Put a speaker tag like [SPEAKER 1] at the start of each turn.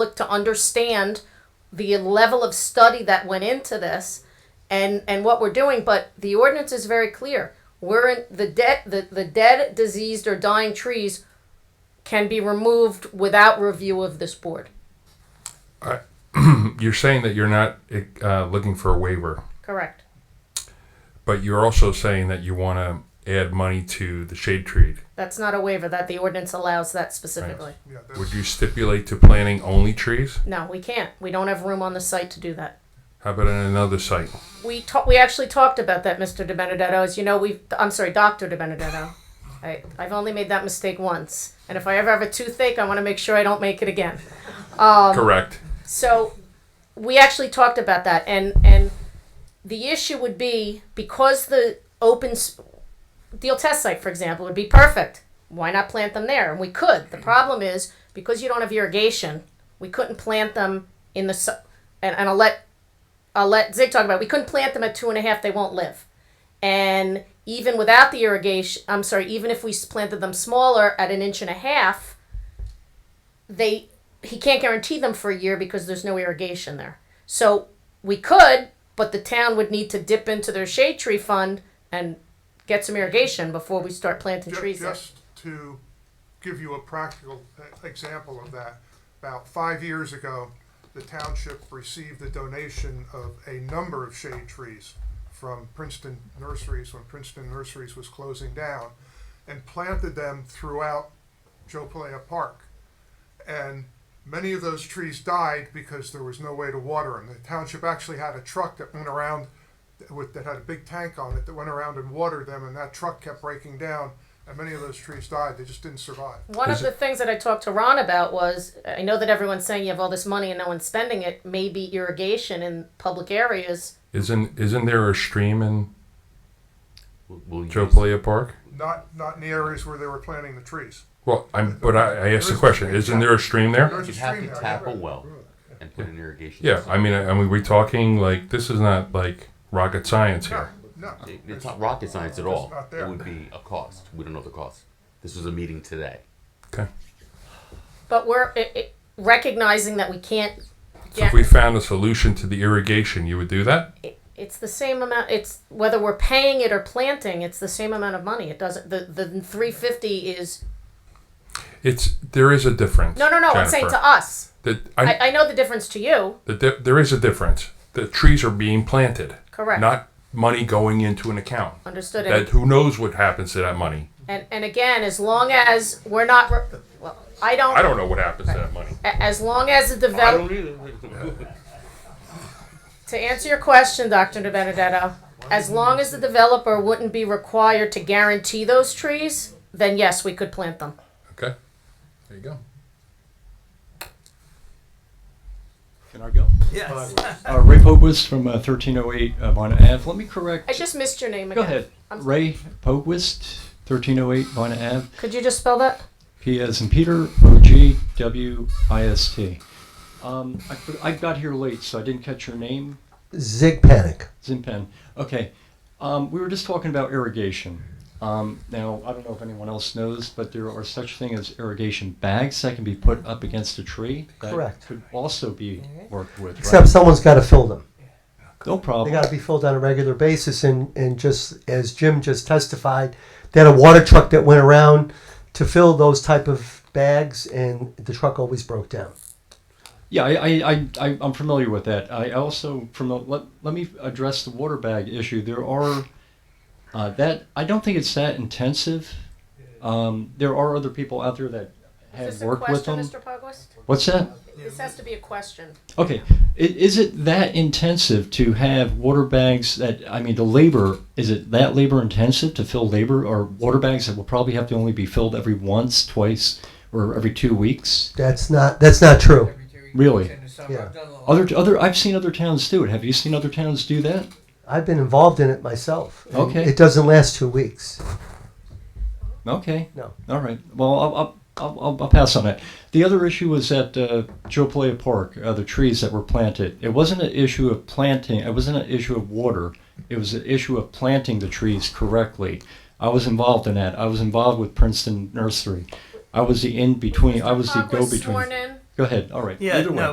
[SPEAKER 1] public to understand the level of study that went into this and and what we're doing but the ordinance is very clear we're in the dead the, the dead diseased or dying trees can be removed without review of this board
[SPEAKER 2] You're saying that you're not uh, looking for a waiver,
[SPEAKER 1] correct
[SPEAKER 2] but you're also saying that you want to add money to the shade tree.
[SPEAKER 1] that's not a waiver that the ordinance allows that specifically
[SPEAKER 3] Yeah,
[SPEAKER 2] Would
[SPEAKER 3] that's,
[SPEAKER 2] you stipulate to planting only trees?
[SPEAKER 1] no we can't we don't have room on the site to do that
[SPEAKER 2] How about on another site?
[SPEAKER 1] we ta- we actually talked about that, Mr. De Benedetto. As you know, we I'm sorry, Doctor De Benedetto. I I've only made that mistake once, and if I ever have a toothache, I want to make sure I don't make it again. Um,
[SPEAKER 2] Correct.
[SPEAKER 1] So we actually talked about that, and and the issue would be because the open s- deal test site, for example, would be perfect. Why not plant them there? And we could. The problem is because you don't have irrigation, we couldn't plant them in the su- and, and I'll let I'll let Zig talk about. It. We couldn't plant them at two and a half. They won't live. And even without the irrigation, I'm sorry, even if we s- planted them smaller at an inch and a half, they he can't guarantee them for a year because there's no irrigation there. So we could, but the town would need to dip into their shade tree fund and get some irrigation before we start planting
[SPEAKER 3] ju-
[SPEAKER 1] trees there.
[SPEAKER 3] just to give you a practical uh, example of that, about five years ago, the township received the donation of a number of shade trees from Princeton Nurseries when Princeton Nurseries was closing down and planted them throughout Joe Palaya Park. and many of those trees died because there was no way to water them. The township actually had a truck that went around with that had a big tank on it that went around and watered them, and that truck kept breaking down, and many of those trees died. They just didn't survive.
[SPEAKER 1] One of
[SPEAKER 2] Is
[SPEAKER 1] the things that I talked to Ron about was I know that everyone's saying you have all this money and no one's spending it. Maybe irrigation in public areas.
[SPEAKER 2] Isn't isn't there a stream in
[SPEAKER 4] We'll, we'll use-
[SPEAKER 2] Joe Playa Park?
[SPEAKER 3] Not not in the areas where they were planting the trees.
[SPEAKER 2] Well, I'm. But I, I asked the question. Isn't there a stream there?
[SPEAKER 3] There's
[SPEAKER 4] You'd
[SPEAKER 3] a
[SPEAKER 4] have
[SPEAKER 3] stream
[SPEAKER 4] to
[SPEAKER 3] there.
[SPEAKER 4] tap a well and put an irrigation.
[SPEAKER 2] Yeah.
[SPEAKER 4] system.
[SPEAKER 2] I mean, I, I mean, we're talking like this is not like rocket science here.
[SPEAKER 3] No,
[SPEAKER 4] It- it's not rocket science at all.
[SPEAKER 3] not there.
[SPEAKER 4] It would be a cost. We don't know the cost. This was a meeting today.
[SPEAKER 2] Okay.
[SPEAKER 1] But we're i i recognizing that we can't.
[SPEAKER 2] So if we found a solution to the irrigation, you would do that.
[SPEAKER 1] it- it's the same amount. It's whether we're paying it or planting. It's the same amount of money. It doesn't. The the three fifty is
[SPEAKER 2] It's there is a difference.
[SPEAKER 1] no no no. I'm saying
[SPEAKER 2] Jennifer.
[SPEAKER 1] to us.
[SPEAKER 2] That I,
[SPEAKER 1] I, I know the difference to you.
[SPEAKER 2] The di- there is a difference. The trees are being planted.
[SPEAKER 1] Correct.
[SPEAKER 2] Not money going into an account.
[SPEAKER 1] Understood.
[SPEAKER 2] That who knows what happens to that money?
[SPEAKER 1] And and again, as long as we're not. re- Well, I don't.
[SPEAKER 2] I don't know what happens to that money.
[SPEAKER 1] a- As long as the develop. To answer your question, Dr. De Benedetto, as long as the developer wouldn't be required to guarantee those trees, then yes, we could plant them.
[SPEAKER 2] Okay. There you go.
[SPEAKER 5] Can I go? Yes. Uh, Ray Pogwist from uh, 1308 Von Ave. Let me
[SPEAKER 1] I
[SPEAKER 5] correct.
[SPEAKER 1] just missed your name
[SPEAKER 5] Go
[SPEAKER 1] again.
[SPEAKER 5] ahead.
[SPEAKER 1] I'm-
[SPEAKER 5] Ray Pogwist, 1308 Von Ave.
[SPEAKER 1] Could you just spell that?
[SPEAKER 5] P as in Peter, O G W I S T. Um, I, but I got here late, so I didn't catch your name.
[SPEAKER 6] Zig Panic.
[SPEAKER 5] Zimpen. Okay. Um, we were just talking about irrigation. Um, now, I don't know if anyone else knows, but there are such thing as irrigation bags that can be put up against a tree. That
[SPEAKER 6] Correct.
[SPEAKER 5] Could also be worked with.
[SPEAKER 6] Except
[SPEAKER 5] right?
[SPEAKER 6] someone's got to fill them.
[SPEAKER 5] no
[SPEAKER 6] They
[SPEAKER 5] problem.
[SPEAKER 6] got to be filled on a regular basis. And, and just as Jim just testified, they had a water truck that went around to fill those type of bags, and the truck always broke down.
[SPEAKER 5] Yeah, I, I, I, I- I'm familiar with that. I also promote. Let, let me address the water bag issue. There are uh, that I don't think it's that intensive. Um, there are other people out there that
[SPEAKER 1] Is
[SPEAKER 5] have
[SPEAKER 1] this a
[SPEAKER 5] worked with
[SPEAKER 1] question,
[SPEAKER 5] them.
[SPEAKER 1] Mr. Pugwist?
[SPEAKER 5] What's that?
[SPEAKER 1] This has to be a question.
[SPEAKER 5] Okay, I- is it that intensive to have water bags that I mean the labor is it that labor intensive to fill labor or water bags that will probably have to only be filled every once, twice, or every two weeks?
[SPEAKER 6] That's not that's not true.
[SPEAKER 5] Really?
[SPEAKER 6] Yeah.
[SPEAKER 5] Other other I've seen other towns do it. Have you seen other towns do that?
[SPEAKER 6] I've been involved in it myself. and
[SPEAKER 5] Okay.
[SPEAKER 6] It doesn't last two weeks.
[SPEAKER 5] Okay.
[SPEAKER 6] No.
[SPEAKER 5] All right. Well, I'll, I'll, I'll, I'll- I'll pass on it. The other issue was at uh, Joe Playa Park, uh, the trees that were planted. It wasn't an issue of planting. It wasn't an issue of water. It was an issue of planting the trees correctly. I was involved in that. I was involved with Princeton Nursery. I was the in between. I was the
[SPEAKER 1] Pugh
[SPEAKER 5] go
[SPEAKER 1] was Sworn
[SPEAKER 5] between.
[SPEAKER 1] in,
[SPEAKER 5] Go ahead. All right.
[SPEAKER 7] Yeah,
[SPEAKER 5] Either way.
[SPEAKER 7] no,